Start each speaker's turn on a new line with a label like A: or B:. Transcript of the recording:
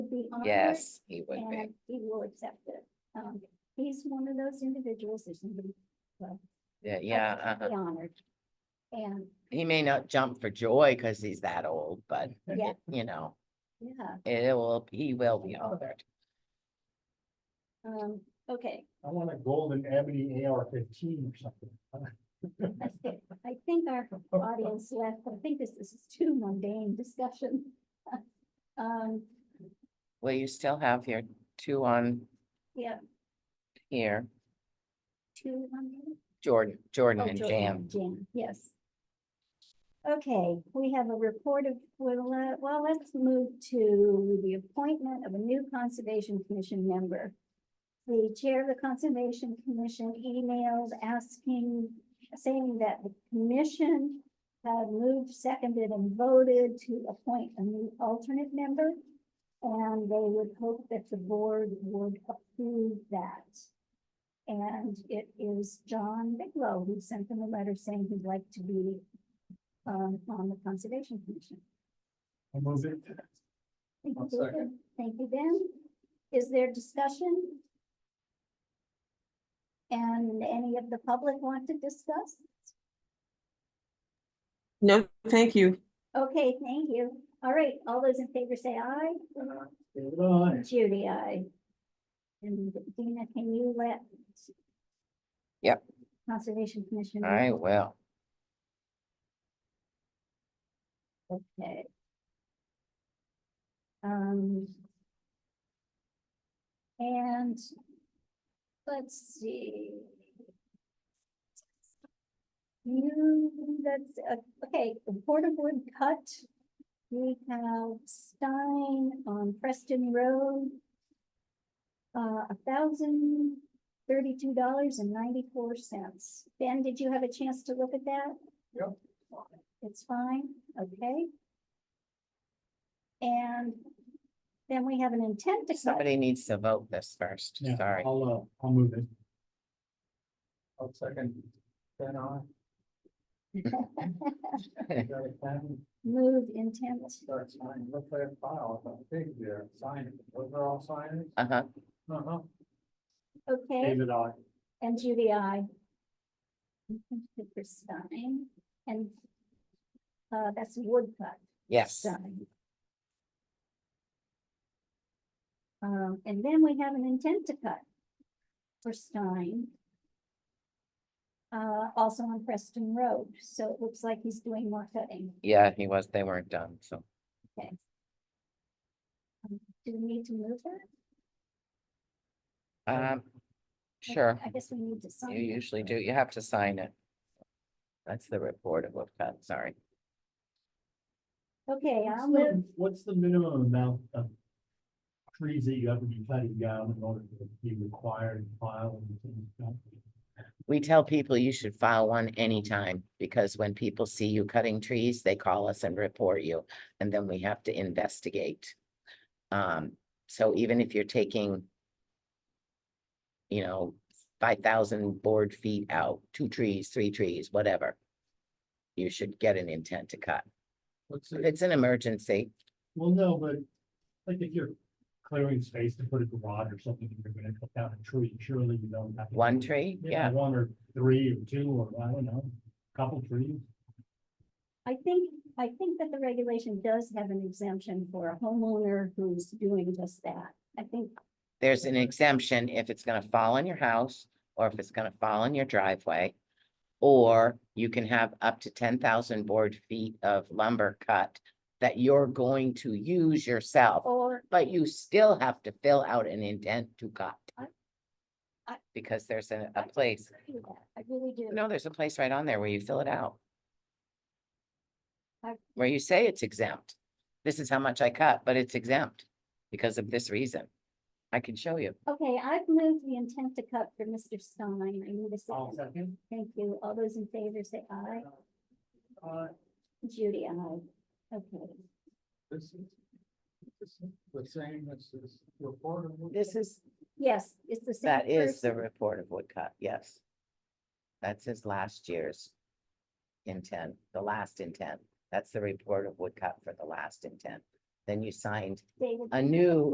A: be honored.
B: Yes, he would be.
A: And he will accept it. Um, he's one of those individuals that's gonna be
B: Yeah, Yeah, uh-huh.
A: be honored. And,
B: he may not jump for joy because he's that old, but
A: Yeah.
B: you know,
A: yeah,
B: it will, he will be honored.
A: um, okay,
C: I want a golden ebony AR fifteen or something.
A: that's good. I think our audience left, I think this this is too mundane discussion. Um,
B: Well, you still have your two on
A: yeah,
B: here,
A: two mundane.
B: Jordan, Jordan
A: Oh,
B: and
A: Jordan
B: Jam.
A: and Jam, yes. Okay, we have a report of, well, uh, well, let's move to the appointment of a new Conservation Commission member. The Chair of the Conservation Commission emailed asking, saying that the commission had moved, seconded, and voted to appoint a new alternate member. And they would hope that the board would approve that. And it is John Bigelow who sent them a letter saying he'd like to be um, on the Conservation Commission.
C: I'll move it.
A: Thank you,
C: I'll second.
A: David. Thank you, Ben. Is there discussion? And any of the public want to discuss?
D: No, thank you.
A: Okay, thank you. All right, all those in favor say aye.
C: David, aye.
A: Judy, aye. And Dina, can you let?
B: Yep.
A: Conservation Commission. know?
B: I will.
A: Okay. Um. And. Let's see. You, Hmm, that's, uh, okay, the Board of Wood Cut. We have Stein on Preston Road. Uh, a thousand thirty-two dollars and ninety-four cents. Ben, did you have a chance to look at that?
C: Yep.
A: It's fine, okay? And then we have an intent to cut.
B: Somebody needs to vote this first,
C: Yeah,
B: sorry.
C: I'll, uh, I'll move it. I'll second. Then I.
A: Move intent,
C: Start signing, look at that file, it's a big there, sign it, those are all signers.
B: Uh-huh,
C: Uh-huh.
A: okay,
C: David, I.
A: and Judy, I. For Stein, and uh, that's woodcut
B: yes,
A: Stein. Um, and then we have an intent to cut for Stein. Uh, also on Preston Road, so it looks like he's doing more cutting.
B: yeah, he was, they weren't done, so.
A: Do we need to move that?
B: Um, sure,
A: I guess we need to sign.
B: you
A: it.
B: usually do, you have to sign it. That's the report of what, got, sorry.
A: Okay, I'll move,
C: What's the minimum amount of trees that you have to be cutting down in order to be required to file? and things like
B: We tell people you should file one anytime, because when people see you cutting trees, they call us and report you, and then we have to investigate. Um, so even if you're taking. You know, five thousand board feet out, two trees, three trees, whatever. You should get an intent to cut.
C: What's
B: If
C: it?
B: it's an emergency,
C: Well, no, but like if you're clearing space to put a garage or something, and you're gonna cut down a tree, surely you don't have. to
B: one
C: do-
B: tree, yeah,
C: One or three or two, or I don't know, couple trees.
A: I think, I think that the regulation does have an exemption for a homeowner who's doing just that. I think,
B: there's an exemption if it's gonna fall on your house, or if it's gonna fall on your driveway. Or you can have up to ten thousand board feet of lumber cut that you're going to use yourself,
A: or,
B: but you still have to fill out an intent to cut.
A: I- I-
B: Because there's a,
A: I
B: a place,
A: disagree with that. I really do.
B: no, there's a place right on there where you fill it out.
A: I-
B: Where you say it's exempt. This is how much I cut, but it's exempt because of this reason. I can show you.
A: Okay, I've moved the intent to cut for Mr. Stein. I need a
C: All
A: second.
C: second.
A: Thank you. All those in favor say aye.
C: Uh,
A: Judy, aye. Okay,
C: this is, this is the same as this report. of-
B: This is
A: yes, it's the same.
B: That is the
A: person.
B: report of Woodcut, yes. That's his last year's intent, the last intent. That's the report of Woodcut for the last intent. Then you signed
A: David.
B: a new